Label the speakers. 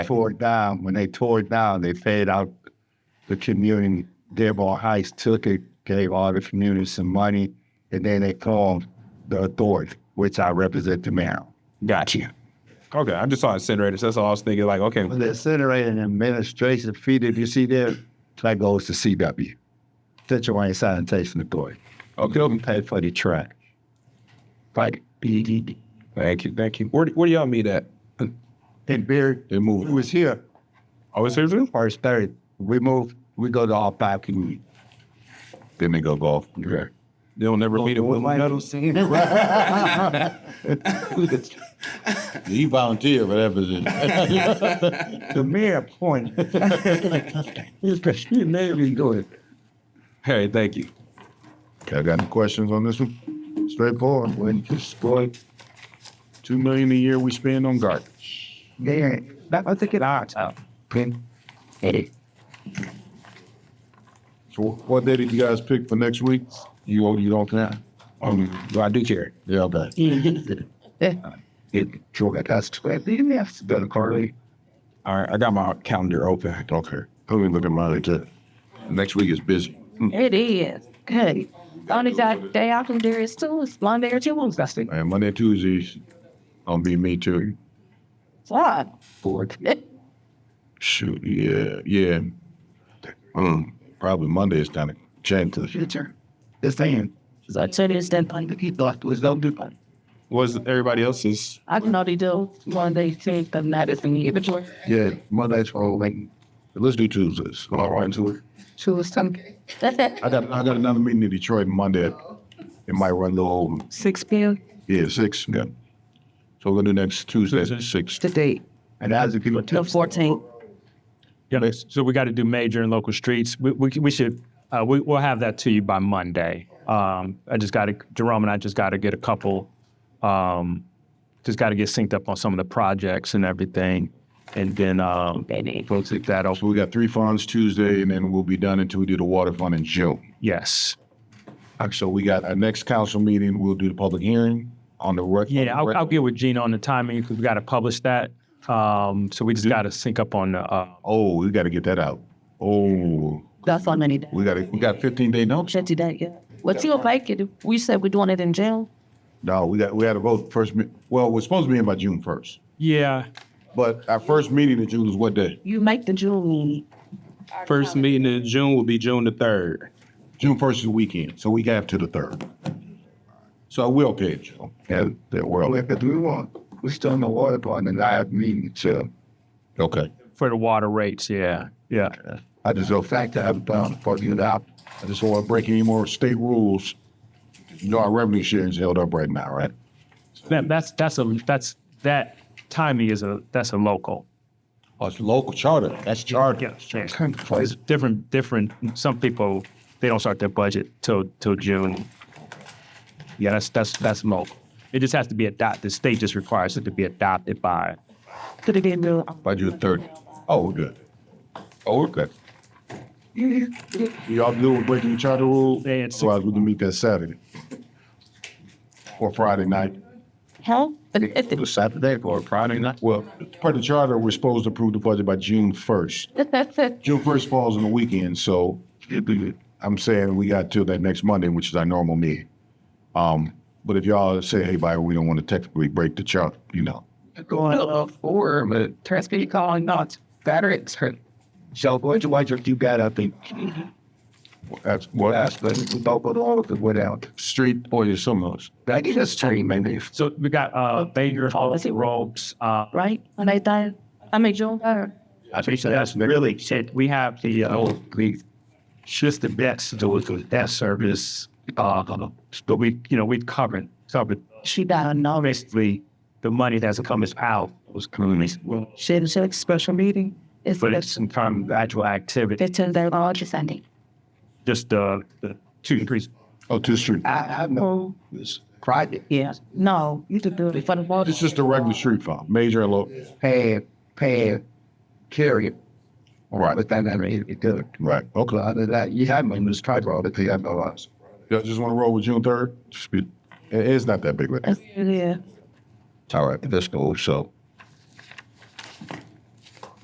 Speaker 1: tore it down, when they tore it down, they paid out the community, Dearborn Heights took it, gave all the community some money, and then they called the authority, which I represent the mayor.
Speaker 2: Got you. Okay, I just saw incinerators. That's all I was thinking. Like, okay,
Speaker 1: Well, The incinerating administration fee, if you see there, that goes to CW, Central Wayne Sanitation Authority.
Speaker 2: Okay.
Speaker 1: They pay for the trash. Right. And
Speaker 2: thank you, thank you. Where do- where do y'all meet at?
Speaker 1: Barry,
Speaker 2: They
Speaker 1: who
Speaker 2: move.
Speaker 1: was here
Speaker 2: Oh, it's here too.
Speaker 1: first Thursday, we moved, we go to all five communities.
Speaker 2: Then they go golf. Okay. They'll never meet at Willie Nettles.
Speaker 3: He volunteered for that position.
Speaker 1: The mayor appointed. He's the mayor, he's going.
Speaker 2: Hey, thank you.
Speaker 3: Okay, I got any questions on this one? Straightforward.
Speaker 1: When you spoil,
Speaker 3: Two million a year we spend on garbage.
Speaker 1: yeah, that was a good art. Pin, edit.
Speaker 3: So wh- what day did you guys pick for next week?
Speaker 2: You won't- you don't care. Um, well, I do care.
Speaker 3: Yeah, okay.
Speaker 1: It, Joe got us to, that's better, Carly.
Speaker 2: All right, I got my calendar open.
Speaker 3: Okay. Let me look at mine too. Next week is busy.
Speaker 4: It is. Hey, only got day out from there is Tuesday, Monday or Tuesday.
Speaker 3: And Monday, Tuesdays, gonna be me too.
Speaker 4: Fuck.
Speaker 1: Board.
Speaker 3: Shoot, yeah, yeah. Mm, probably Monday is kind of chances.
Speaker 1: Future. This thing,
Speaker 4: So today is that Monday.
Speaker 1: he thought was no different.
Speaker 2: Was everybody else's?
Speaker 4: I can only do Monday, Tuesday, and that is in the inventory.
Speaker 3: Yeah,
Speaker 1: Mother's
Speaker 3: Oh,
Speaker 1: for like,
Speaker 3: let's do Tuesdays. All right, Tuesday.
Speaker 4: Tuesday.
Speaker 3: I got I got another meeting in Detroit Monday. It might run a little over.
Speaker 4: Six P M.
Speaker 3: Yeah, six. Yeah. So we're gonna do next Tuesday at six.
Speaker 4: Today,
Speaker 1: and as the people.
Speaker 4: the fourteenth.
Speaker 5: Yeah, so we got to do major and local streets. We, we, we should, uh, we, we'll have that to you by Monday. Um, I just got to, Jerome and I just got to get a couple, um, just got to get synced up on some of the projects and everything. And then, um, we'll take that off.
Speaker 3: So we got three funds Tuesday, and then we'll be done until we do the water fund in June.
Speaker 5: Yes.
Speaker 3: So we got our next council meeting. We'll do the public hearing on the rec.
Speaker 5: Yeah, I'll, I'll get with Gina on the timing because we got to publish that. Um, so we
Speaker 3: Mm-hmm.
Speaker 5: just got to sync up on, the, uh,
Speaker 3: Oh, we got to get that out. Oh,
Speaker 4: That's how many days.
Speaker 3: we got we got fifteen day notice.
Speaker 4: Twenty days, yeah. What you like it? We said we're doing it in June.
Speaker 3: No, we got we had a vote first. me- Well, we're supposed to be in by June first,
Speaker 5: yeah,
Speaker 3: but our first meeting in June is what day?
Speaker 4: You make the June meeting.
Speaker 2: First meeting in June will be June the third.
Speaker 3: June first is the weekend, so we got to the third. So we're okay, Joe.
Speaker 1: Yeah, the world. Because we want, we still in the water part and I have meeting, so.
Speaker 3: Okay.
Speaker 5: for the water rates. Yeah, yeah.
Speaker 1: I just go fact that I'm down for you now.
Speaker 3: I just don't want to break any more state rules. You know, our revenue sharing is held up right now, right?
Speaker 5: That, that's, that's a, that's, that timing is a, that's a local.
Speaker 3: Oh, it's local charter. That's charter.
Speaker 5: Yeah, sure. It's different, different. Some people they don't start their budget till till June. Yeah, that's that's that's local. It just has to be adopted. The state just requires it to be adopted by.
Speaker 4: Could it be in June?
Speaker 3: By June third. Oh, we're good. Oh, we're good. Y'all good with breaking the charter rule?
Speaker 5: They had six-
Speaker 3: Otherwise, we can meet that Saturday. Or Friday night.
Speaker 4: Huh?
Speaker 1: Saturday or Friday night.
Speaker 3: Well, part of the charter, we're supposed to approve the budget by June first. June first falls on the weekend, so I'm saying we got till that next Monday, which is our normal meeting. Um, but if y'all say, hey, by we don't want to technically break the charter, you know.
Speaker 1: Going up four, but
Speaker 4: Transport calling not veterans.
Speaker 1: so what you what you got up in
Speaker 3: That's
Speaker 1: well,
Speaker 3: what
Speaker 1: that's but we don't go to all of it without.
Speaker 3: street or your summers.
Speaker 1: That is a stream, maybe.
Speaker 5: So we got uh Banger, Policy Robes. Uh,
Speaker 4: right? When I die, I mean June third.
Speaker 1: I think that's really said we have the uh we just the best to with the death service. Uh
Speaker 5: but we you know we've covered covered
Speaker 4: She died on it.
Speaker 5: basically the money that's coming out was communities. Well,
Speaker 4: She had a special meeting. It's
Speaker 5: but it's some kind of actual activity.
Speaker 4: fifteen day long Sunday.
Speaker 5: Just uh, the two increase.
Speaker 3: Oh, to the street.
Speaker 1: I have no it's private
Speaker 4: Yeah. No, you can do it for the water.
Speaker 3: It's just a regular street fund, major and local.
Speaker 1: pad pad carrier,
Speaker 3: All right,
Speaker 1: but that I mean it good.
Speaker 3: right,
Speaker 1: But
Speaker 3: okay.
Speaker 1: other than that, you have me was tried all the thing I know us.
Speaker 3: Y'all just want to roll with June third? It's not that big, right?
Speaker 4: That's- Yeah.
Speaker 3: All right, let's go, so.